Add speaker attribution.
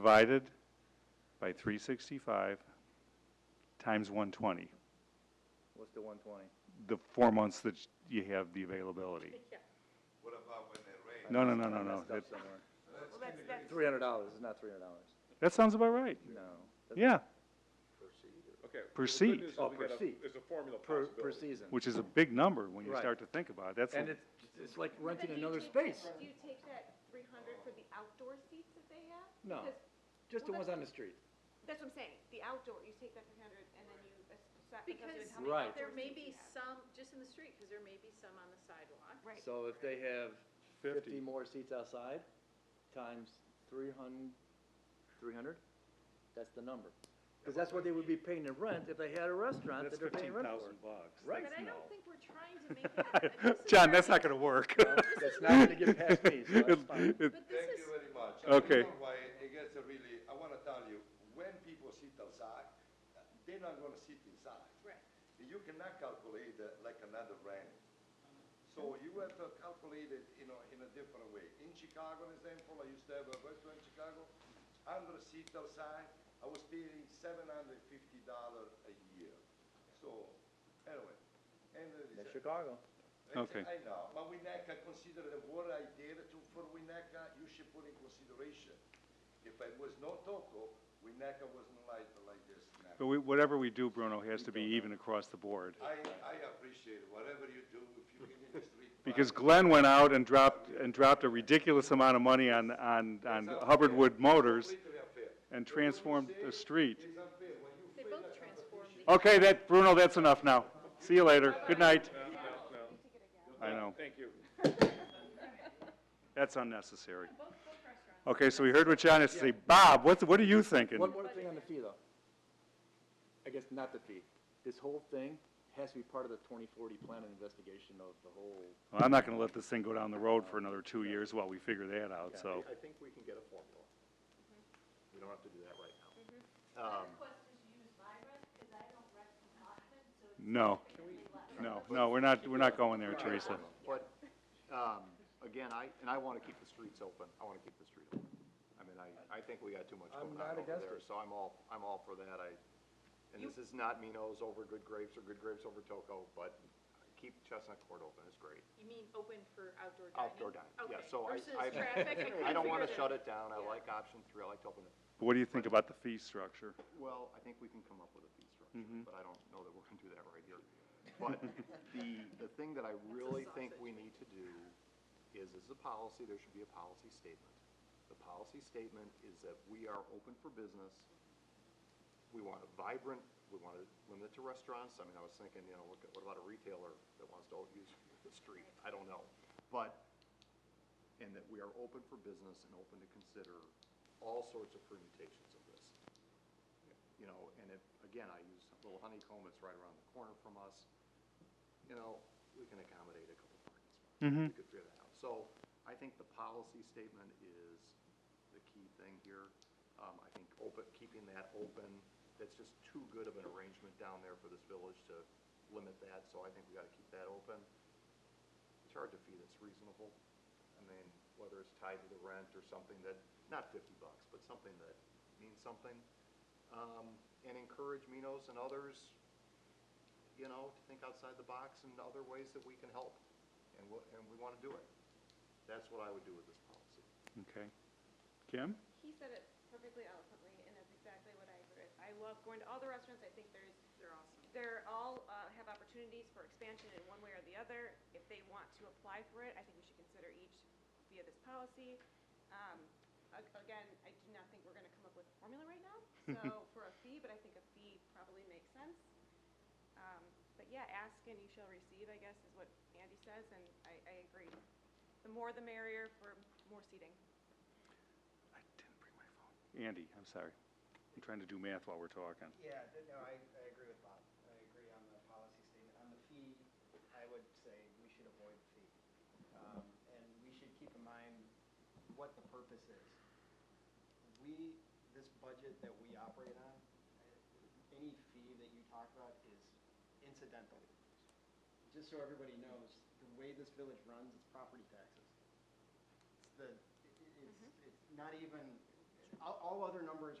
Speaker 1: divided by 365 times 120,
Speaker 2: What's the one twenty?
Speaker 1: the four months that you have the availability.
Speaker 3: What about when it rains?
Speaker 1: No, no, no, no, no. That,
Speaker 2: Three hundred dollars, it's not three hundred dollars,
Speaker 1: that sounds about right.
Speaker 2: no.
Speaker 1: Yeah,
Speaker 4: Okay. well, the good
Speaker 1: Per seat.
Speaker 4: news is
Speaker 2: Oh,
Speaker 4: we
Speaker 2: per
Speaker 4: got a-
Speaker 2: seat.
Speaker 4: There's a formula
Speaker 2: Per, per
Speaker 4: possibility.
Speaker 2: season.
Speaker 1: which is a big number when you
Speaker 2: Right.
Speaker 1: start to think about it. That's,
Speaker 2: And it's, it's like renting another space,
Speaker 5: Do you take that three hundred for the outdoor seats that they have?
Speaker 2: No.
Speaker 5: Because-
Speaker 2: just the ones on the street.
Speaker 5: That's what I'm saying, the outdoor, you take that three hundred and then you, that's, that's how
Speaker 6: Because
Speaker 5: many
Speaker 2: Right.
Speaker 6: there
Speaker 5: outdoor
Speaker 6: may
Speaker 5: seats you
Speaker 6: be
Speaker 5: have.
Speaker 6: some, just in the street, because there may be some on the sidewalk.
Speaker 5: Right.
Speaker 2: So if they have
Speaker 1: 50.
Speaker 2: fifty more seats outside, times three hun- three hundred, that's the number. Cause that's what they would be paying in rent if they had a restaurant
Speaker 1: that's
Speaker 2: that they're paying rent
Speaker 1: 15,000
Speaker 2: for.
Speaker 1: bucks.
Speaker 2: Right.
Speaker 6: But I don't think we're trying to make it. this is
Speaker 1: John,
Speaker 6: where-
Speaker 1: that's not going to work.
Speaker 2: That's not gonna get past me, so that's fine.
Speaker 1: It-
Speaker 6: But this is,
Speaker 3: Thank you very much.
Speaker 1: Okay.
Speaker 3: I don't know why it gets really, I wanna tell you, when people sit outside, they're not gonna sit inside.
Speaker 6: right,
Speaker 3: You cannot calculate uh, like another rent. So you have to calculate it, you know, in a different way. In Chicago, an example, I used to have a restaurant in Chicago, hundred seat outside, I was paying seven hundred fifty dollar a year. So, anyway, and it is.
Speaker 2: That's Chicago.
Speaker 1: Okay.
Speaker 3: I know, but Winnetka, consider the what I did to, for Winnetka, you should put in consideration. If I was not Toco, Winnetka wasn't like, like this now.
Speaker 1: But we, whatever we do, Bruno, has to be even across the board.
Speaker 3: I, I appreciate whatever you do, if you get in the street.
Speaker 1: Because
Speaker 3: fight,
Speaker 1: Glenn went out and dropped, and dropped a ridiculous amount of money on, on, on
Speaker 3: it's
Speaker 1: Hubbard
Speaker 3: unfair.
Speaker 1: Wood Motors
Speaker 3: Completely unfair.
Speaker 1: and transformed the street.
Speaker 3: It's unfair. When you
Speaker 6: they
Speaker 3: fail
Speaker 6: both
Speaker 3: that
Speaker 6: transform the
Speaker 1: Okay, that, Bruno, that's enough now. See you later. Good night. I know.
Speaker 4: Thank you.
Speaker 1: That's unnecessary. Okay, so we heard what John has to say. Bob, what, what are you thinking?
Speaker 2: One more thing on the fee, though. I guess not the fee. This whole thing has to be part of the twenty forty plan and investigation of the whole.
Speaker 1: Well, I'm not gonna let this thing go down the road for another two years while we figure that out, so.
Speaker 7: I think we can get a formula.
Speaker 2: Mm-hmm.
Speaker 7: We don't have to do that right now.
Speaker 1: No, no, no, we're not, we're not going there, Teresa.
Speaker 7: But, um, again, I, and I want to keep the streets open. I want to keep the street open. I mean, I, I think we got too much
Speaker 2: I'm
Speaker 7: going
Speaker 2: not
Speaker 7: on over
Speaker 2: against
Speaker 7: there,
Speaker 2: it.
Speaker 7: so I'm all, I'm all for that. I, and this is not Minos over Good Grapes or Good Grapes over Toco, but keep Chestnut Court open. It's great.
Speaker 6: You mean open for outdoor dining?
Speaker 7: Outdoor dining, yeah,
Speaker 6: Okay,
Speaker 7: so I,
Speaker 6: versus
Speaker 7: I.
Speaker 6: traffic, I
Speaker 7: I don't
Speaker 6: couldn't
Speaker 7: want to
Speaker 6: figure
Speaker 7: shut
Speaker 6: that.
Speaker 7: it down. I
Speaker 6: Yeah.
Speaker 7: like option three. I like to open it.
Speaker 1: What do you think about the fee structure?
Speaker 7: Well, I think we can come up with a fee structure, but I don't know that we're gonna do that right here. But the, the thing that I really think we need to do is, as a policy, there should be a policy statement. The policy statement is that we are open for business. We want a vibrant, we want to limit it to restaurants. I mean, I was thinking, you know, what what about a retailer that wants to use the street? I don't know. But and that we are open for business and open to consider all sorts of permutations of this. You know, and if, again, I use Little Honeycomb, it's right around the corner from us, you know, we can accommodate a couple parking spots. We could figure that out. So I think the policy statement is the key thing here. Um, I think open, keeping that open, that's just too good of an arrangement down there for this village to limit that, so I think we gotta keep that open charge a fee that's reasonable. I mean, whether it's tied to the rent or something that, not fifty bucks, but something that means something. Um, and encourage Minos and others, you know, to think outside the box and other ways that we can help. And we, and we wanna do it. That's what I would do with this policy.
Speaker 1: Okay. Kim?
Speaker 5: He said it perfectly eloquently, and that's exactly what I agree with. I love going to all the restaurants, I think there's,
Speaker 6: They're awesome.
Speaker 5: they're all, uh, have opportunities for expansion in one way or the other. If they want to apply for it, I think we should consider each via this policy. Um, a- again, I do not think we're gonna come up with a formula right now, so, for a fee, but I think a fee probably makes sense. Um, but yeah, ask and you shall receive, I guess, is what Andy says, and I, I agree. The more the merrier for more seating.
Speaker 1: I didn't bring my phone. Andy, I'm sorry. I'm trying to do math while we're talking.
Speaker 8: Yeah, th- no, I, I agree with Bob. I agree on the policy statement. On the fee, I would say we should avoid the fee. Um, And we should keep in mind what the purpose is. We, this budget that we operate on, uh, any fee that you talk about is incidental. Just so everybody knows, the way this village runs, it's property taxes. It's the, it- it's, it's not even, all, all other numbers